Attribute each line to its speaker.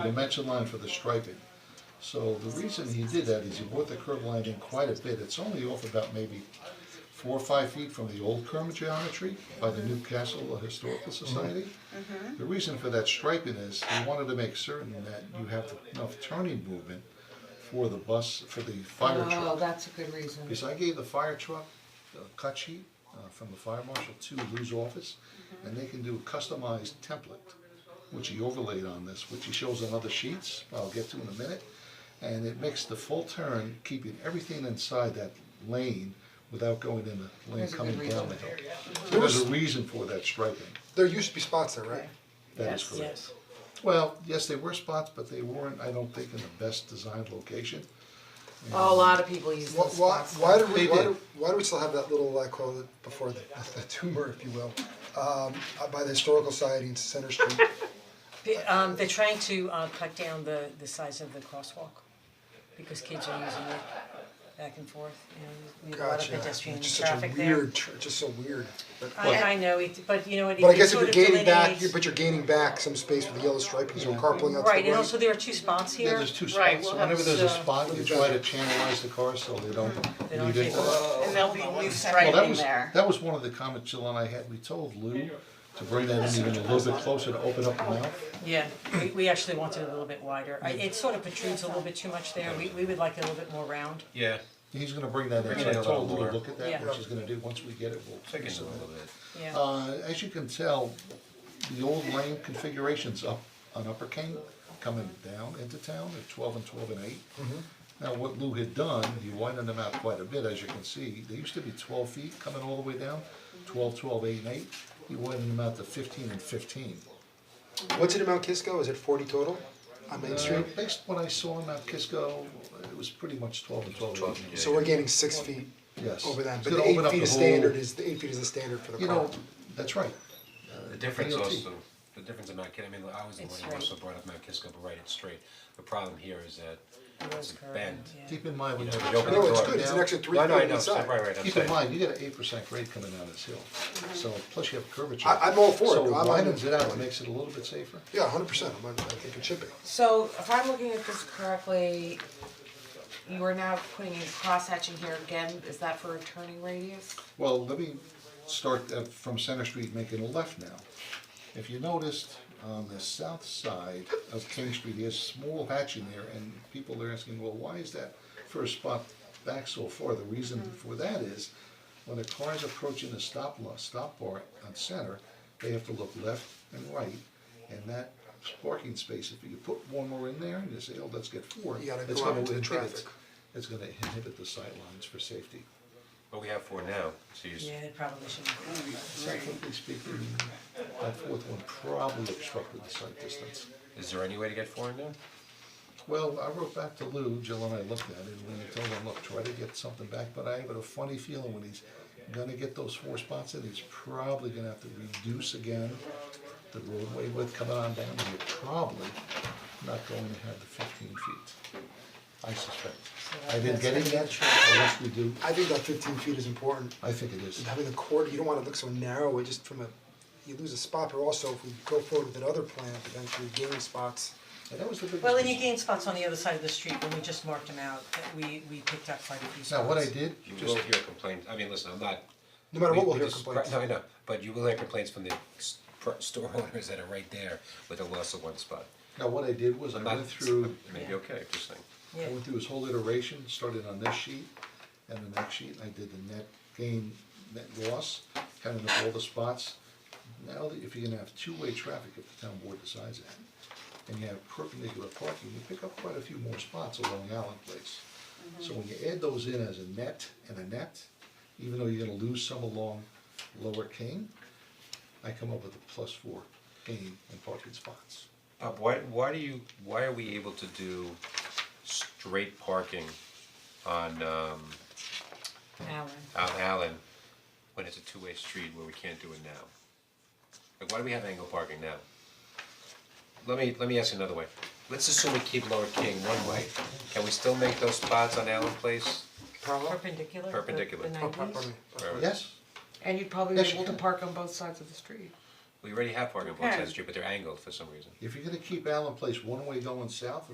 Speaker 1: dimension line for the striping. So the reason he did that is he brought the curb line in quite a bit, it's only off about maybe four or five feet from the old curb geometry by the Newcastle Historical Society. The reason for that striping is he wanted to make certain that you have enough turning movement for the bus, for the fire truck.
Speaker 2: Oh, that's a good reason.
Speaker 1: Because I gave the fire truck a cut sheet uh, from the fire marshal to Lou's office, and they can do a customized template, which he overlaid on this, which he shows on other sheets, I'll get to in a minute. And it makes the full turn, keeping everything inside that lane without going in the lane
Speaker 2: There's a good
Speaker 1: coming down
Speaker 2: reason.
Speaker 1: the hill. There's a reason for that striping,
Speaker 3: There used to be spots there, right?
Speaker 1: that is correct. Well, yes, they were spots, but they weren't, I don't think, in the best designed location.
Speaker 2: A lot of people use
Speaker 3: Why,
Speaker 2: those
Speaker 3: why,
Speaker 2: spots.
Speaker 3: why do we,
Speaker 1: They
Speaker 3: why
Speaker 1: did.
Speaker 3: do, why do we still have that little, I call it before the, the tumor, if you will, um, uh, by the historical society in Center Street?
Speaker 4: They- Um, they're trying to uh cut down the the size of the crosswalk because kids are using it back and forth, you know, we have a lot of
Speaker 3: Gotcha,
Speaker 4: pedestrian
Speaker 3: it's just such a
Speaker 4: traffic there.
Speaker 3: weird, tr- just so weird, but,
Speaker 4: I I know, it, but you know, it
Speaker 3: but I
Speaker 4: it
Speaker 3: guess if
Speaker 4: sort
Speaker 3: you're
Speaker 4: of
Speaker 3: gaining back,
Speaker 4: delineates.
Speaker 3: you're- but you're gaining back some space with the yellow striping, so carpooling out to the
Speaker 4: Right, and
Speaker 3: right.
Speaker 4: also there are two spots
Speaker 1: Yeah,
Speaker 4: here.
Speaker 1: there's two
Speaker 5: Right,
Speaker 1: spots,
Speaker 5: we'll
Speaker 1: so
Speaker 5: have
Speaker 1: whenever there's a
Speaker 5: some-
Speaker 1: spot, you try to channelize the car so they don't
Speaker 4: They don't
Speaker 1: leave it.
Speaker 4: take over.
Speaker 5: And there'll be new
Speaker 1: Well, that
Speaker 5: striping
Speaker 1: was,
Speaker 5: there.
Speaker 1: that was one of the comments Jill and I had, we told Lou to bring that in even a little bit closer to open up the mouth.
Speaker 4: Yeah, we we actually want it a little bit wider, I it sort of protrudes a little bit too much there, we we would like it a little bit more round.
Speaker 6: Yeah,
Speaker 1: He's gonna bring that in, so
Speaker 6: it
Speaker 1: I
Speaker 6: a
Speaker 1: told
Speaker 6: little
Speaker 1: Lou to
Speaker 6: more.
Speaker 1: look at that,
Speaker 4: Yeah.
Speaker 1: which he's gonna do, once we get it, we'll.
Speaker 6: take it a little bit.
Speaker 4: Yeah.
Speaker 3: Um,
Speaker 1: Uh, as you can tell, the old lane configurations up on Upper King, coming down into town at twelve and twelve and 8
Speaker 3: Mm-hmm.
Speaker 1: Now, what Lou had done, he widened them out quite a bit, as you can see, they used to be twelve feet coming all the way down, 12, 12, 8, and eight. He widened them out to fifteen and fifteen.
Speaker 3: What's it in Mount Kisco, is it forty total on Main
Speaker 1: Uh,
Speaker 3: Street?
Speaker 1: Based on what I saw in Mount Kisco, it was pretty much twelve and twelve, eight.
Speaker 3: So we're gaining six feet
Speaker 1: Yes.
Speaker 3: over that,
Speaker 1: It's
Speaker 3: but the
Speaker 1: gonna open
Speaker 3: eight
Speaker 1: up
Speaker 3: feet
Speaker 1: the
Speaker 3: is standard,
Speaker 1: whole-
Speaker 3: is, the eight feet is the standard for the car.
Speaker 1: You know, that's right,
Speaker 6: The difference
Speaker 1: DOT.
Speaker 6: also, the difference in Mount Kisco, I mean, I was the
Speaker 4: It's
Speaker 6: one who
Speaker 4: straight.
Speaker 6: also brought up Mount Kisco, but right, it's straight. The problem here is that it's a
Speaker 4: curved,
Speaker 6: bend.
Speaker 4: yeah.
Speaker 1: keep in mind when
Speaker 6: You know,
Speaker 1: you're.
Speaker 6: you open
Speaker 3: No,
Speaker 6: the
Speaker 3: it's
Speaker 6: door-
Speaker 3: good, it's an extra three
Speaker 6: No, no,
Speaker 3: feet
Speaker 6: I know, so-
Speaker 3: inside.
Speaker 6: right, right, I'm
Speaker 1: Keep in
Speaker 6: saying.
Speaker 1: mind, you got an eight percent grade coming down this hill, so plus you have curvature.
Speaker 3: I- I'm all for it.
Speaker 1: So
Speaker 3: I'm-
Speaker 1: it widens it out, it makes it a little bit safer.
Speaker 3: Yeah, hundred percent, I'm, I think it should be.
Speaker 2: So if I'm looking at this correctly, you are now putting in cross hatching here again, is that for a turning radius?
Speaker 1: Well, let me start uh, from Center Street, making a left now. If you noticed, on the south side of King Street, there's small hatching there, and people are asking, well, why is that first spot back so far? The reason for that is, when a car is approaching the stop lo- stop bar on Center, they have to look left and right, and that parking space, if you put one more in there, and you say, oh, let's get four,
Speaker 3: You gotta
Speaker 1: it's
Speaker 3: go out
Speaker 1: gonna
Speaker 3: into the
Speaker 1: inhibit,
Speaker 3: traffic.
Speaker 1: it's gonna inhibit the sight lines for safety.
Speaker 6: But we have four now, so you, s-
Speaker 4: Yeah, it probably shouldn't.
Speaker 1: Technically speaking, that fourth one probably obstructed the sight distance.
Speaker 6: is there any way to get four in there?
Speaker 1: Well, I wrote back to Lou, Jill and I looked at it, and we told him, look, try to get something back, but I have a funny feeling when he's gonna get those four spots in, he's probably gonna have to reduce again the roadway width coming on down, and you're probably not going to have the fifteen feet, I suspect. I didn't get it yet, unless we do,
Speaker 3: I think that fifteen feet is important,
Speaker 1: I think it is.
Speaker 3: And having the corridor, you don't wanna look so narrow, it just from a, you lose a spot, but also if we go forward with another plan, eventually gaining spots.
Speaker 1: And that was the biggest.
Speaker 4: Well, and you
Speaker 1: concern.
Speaker 4: gain spots on the other side of the street, when we just marked them out, that we we picked up quite a few spots.
Speaker 1: Now, what I did,
Speaker 6: You
Speaker 1: just
Speaker 6: will hear complaints, I mean, listen, I'm not.
Speaker 3: No matter
Speaker 6: we-
Speaker 3: what, we'll
Speaker 6: we
Speaker 3: hear
Speaker 6: just-
Speaker 3: complaints.
Speaker 6: No, I know, but you will hear complaints from the s- pro- store owners that are right there with the loss of one spot.
Speaker 1: Now, what I did was I
Speaker 6: I'm not,
Speaker 1: went through,
Speaker 6: it may be okay, just saying.
Speaker 1: I went through his whole iteration, started on this sheet and the next sheet, and I did the net gain, net loss, counting up all the spots. Now, that if you're gonna have two-way traffic, if the town board decides that, and you have perpendicular parking, you pick up quite a few more spots along Allen Place. So when you add those in as a net and a net, even though you're gonna lose some along Lower King, I come up with a plus four gain in parking spots.
Speaker 6: Bob, why why do you, why are we able to do straight parking on um
Speaker 2: Alan.
Speaker 6: on Allen when it's a two-way street where we can't do it now? Like, why do we have angle parking now? Let me, let me ask you another way. Let's assume we keep Lower King one way. Can we still make those spots on Allen Place?
Speaker 3: Parallel?
Speaker 4: Perpendicular, the-
Speaker 6: Perpendicular.
Speaker 4: the
Speaker 3: Oh, pardon
Speaker 4: 90s?
Speaker 3: me.
Speaker 6: Or-
Speaker 1: Yes?
Speaker 2: And you'd probably
Speaker 1: Yes,
Speaker 2: be
Speaker 1: you
Speaker 2: able to
Speaker 1: can.
Speaker 2: park on both sides of the street.
Speaker 6: We already have parking on both sides of the street, but they're angled for some reason.
Speaker 1: If you're gonna keep Allen Place one way going south,